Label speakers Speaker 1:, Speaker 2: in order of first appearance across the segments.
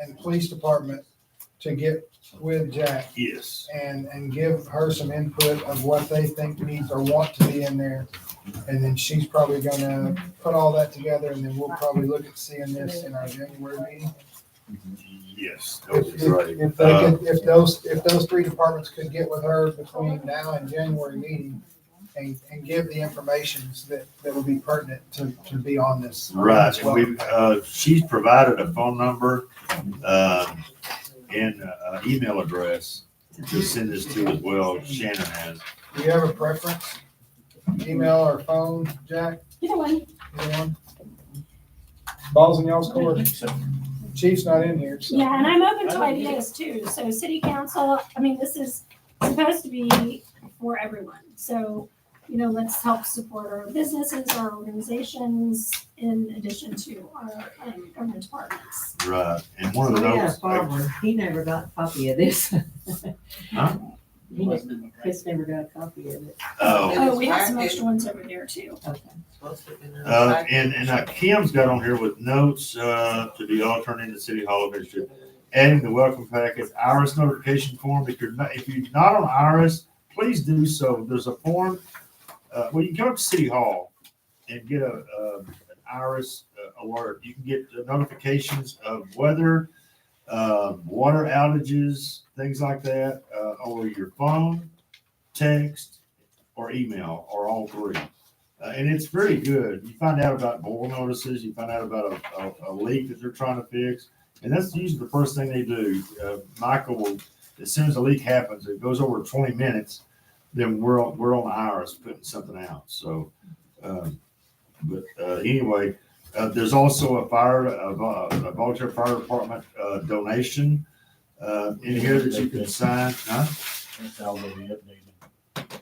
Speaker 1: and police department to get with Jack
Speaker 2: Yes.
Speaker 1: and, and give her some input of what they think needs or want to be in there. And then she's probably gonna put all that together and then we'll probably look at seeing this in our January meeting.
Speaker 2: Yes.
Speaker 1: If,
Speaker 2: those are-
Speaker 1: if- if they
Speaker 2: Uh,
Speaker 1: could, if those, if those three departments could get with her between now and January meeting and, and give the informations that, that would be pertinent to, to be on this.
Speaker 2: Right, and we, uh, she's provided a phone number, um, and uh, an email address to send this to as well, Shannon has.
Speaker 1: Do you have a preference? Email or phone, Jack?
Speaker 3: Either way.
Speaker 1: Anyone? Balls in y'all's court. Chief's not in here, so.
Speaker 3: Yeah, and I'm open to ideas too. So city council, I mean, this is supposed to be for everyone. So, you know, let's help support our businesses, our organizations, in addition to our um, government departments.
Speaker 2: Right, and one
Speaker 4: We
Speaker 2: of
Speaker 4: had a
Speaker 2: those,
Speaker 4: problem. He never got a copy of this.
Speaker 2: Huh?
Speaker 4: He never, Chris never got a copy of it.
Speaker 2: oh,
Speaker 3: Oh, we have some extra ones over there too.
Speaker 4: Okay.
Speaker 2: uh, and, and uh, Kim's got on here with notes, uh, to be all turned into City Hall of Ministry. Adding the welcome packet, IRS notification form, if you're not, if you're not on IRS, please do so. There's a form, uh, well, you can go to City Hall and get a, uh, an IRS uh, alert. You can get the notifications of weather, uh, water outages, things like that, uh, over your phone, text, or email, or all three. Uh, and it's very good. You find out about boil notices, you find out about a, a, a leak that they're trying to fix. And that's usually the first thing they do. Uh, Michael will, as soon as a leak happens, it goes over 20 minutes, then we're, on- we're on ours putting something out. So, um, but uh, anyway, uh, there's also a fire, a, vol- a volunteer fire department uh, donation uh, in here that you can sign. Huh?
Speaker 5: That's all will be updated.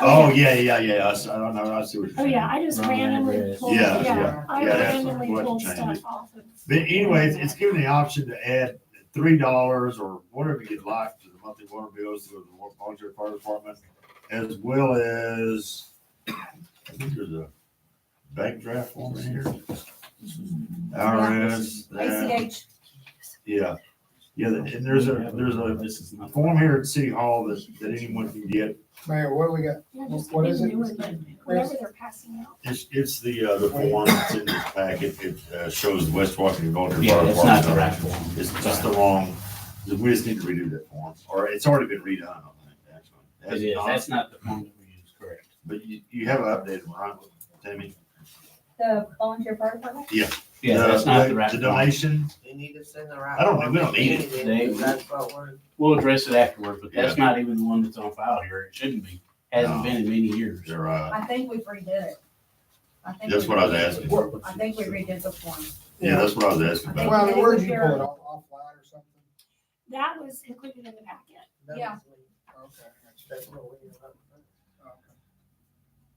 Speaker 2: Oh, yeah, yeah, yeah. I, s- I don't know. I see what you're
Speaker 3: Oh,
Speaker 2: saying.
Speaker 3: yeah, I just
Speaker 5: Wrong
Speaker 3: randomly
Speaker 5: address.
Speaker 3: pulled,
Speaker 2: Yeah,
Speaker 3: yeah,
Speaker 5: yeah,
Speaker 3: I
Speaker 2: yeah, that's
Speaker 3: randomly
Speaker 2: what
Speaker 3: pulled
Speaker 2: changed
Speaker 3: stuff
Speaker 2: it.
Speaker 3: off of.
Speaker 2: But anyway, it's, it's given the option to add three dollars or whatever you'd like to the monthly water bills through the volunteer fire department, as well as I think there's a bank draft form in here. IRS, that,
Speaker 6: ACH.
Speaker 2: yeah, yeah, and there's a, there's a,
Speaker 5: This is
Speaker 2: a
Speaker 5: not.
Speaker 2: form here at City Hall that, that anyone can get.
Speaker 1: Mayor, what do we got?
Speaker 3: Yeah, just
Speaker 1: What
Speaker 3: give
Speaker 1: is
Speaker 3: me the
Speaker 1: it?
Speaker 3: new one, but Whatever they're passing out.
Speaker 2: It's, it's the, uh, the form that's in this packet. It, uh, shows the West Washington Volunteer
Speaker 5: Yeah,
Speaker 2: Fire
Speaker 5: it's not
Speaker 2: Department.
Speaker 5: the right one.
Speaker 2: It's just the wrong, we just need to redo that form, or it's already been redone, I think, actually.
Speaker 5: It is, that's not the form that we use, correct?
Speaker 2: But you, you have an updated one, right, Tammy?
Speaker 6: The volunteer fire department?
Speaker 5: Yeah,
Speaker 2: The-
Speaker 5: that's not the right
Speaker 2: The
Speaker 5: one.
Speaker 2: donation,
Speaker 7: They need to send the right.
Speaker 2: I don't- we don't need it.
Speaker 5: They-
Speaker 7: That's what we're,
Speaker 5: We'll address it afterward, but that's not even the one that's on file here. It shouldn't be. Hasn't been in many years.
Speaker 2: you're right.
Speaker 6: I think we redid it. I think
Speaker 2: That's
Speaker 6: we
Speaker 2: what I was
Speaker 6: redid it.
Speaker 2: asking.
Speaker 6: I think we redid the form.
Speaker 2: Yeah, that's what I was asking
Speaker 6: Yeah.
Speaker 2: about.
Speaker 1: Well, where'd you pull it off, offline or something?
Speaker 3: That was included in the packet.
Speaker 6: Yeah.
Speaker 1: Okay, I got you.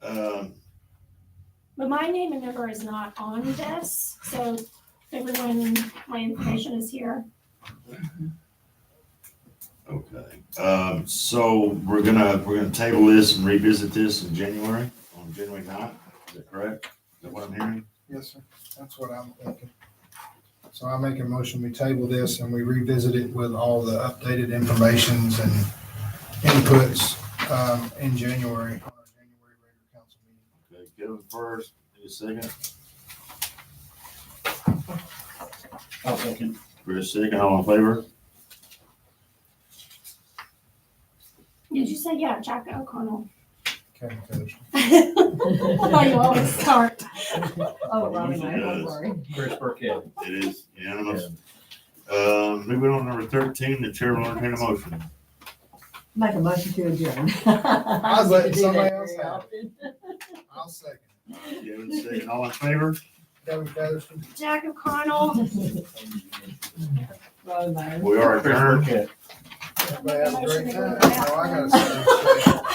Speaker 1: Okay.
Speaker 2: Um,
Speaker 3: But my name and number is not on this, so everyone, my information is here.
Speaker 2: okay, um, so we're gonna, we're gonna table this and revisit this in January, on January ninth, is that correct? Is that what I'm hearing?
Speaker 1: Yes, sir. That's what I'm thinking. So I make a motion, we table this and we revisit it with all the updated informations and inputs um, in January. on our January regular council meeting.
Speaker 2: Okay, Kevin first, any second,
Speaker 5: I'll second.
Speaker 2: Chris second, all in favor?
Speaker 3: Did you say, yeah, Jack O'Connell?
Speaker 1: Kevin Fish.
Speaker 3: I thought you always start.
Speaker 4: Oh, well,
Speaker 2: Usually
Speaker 4: anyway,
Speaker 2: does.
Speaker 4: don't worry.
Speaker 5: Chris Burkett.
Speaker 2: It is unanimous. Uh, moving on to number thirteen, the chair will entertain a motion.
Speaker 4: Make a motion to adjourn.
Speaker 1: I
Speaker 4: I
Speaker 1: was letting
Speaker 4: do that
Speaker 1: somebody
Speaker 4: very
Speaker 1: else have it.
Speaker 4: often.
Speaker 1: I'll second.
Speaker 2: Kevin second, all in favor?
Speaker 1: Kevin Fish.
Speaker 3: Jack O'Connell.
Speaker 4: Well, my-
Speaker 2: We are
Speaker 5: Chris
Speaker 2: adjourned.
Speaker 5: Burkett.
Speaker 1: Everybody have a great time. Oh, I gotta say.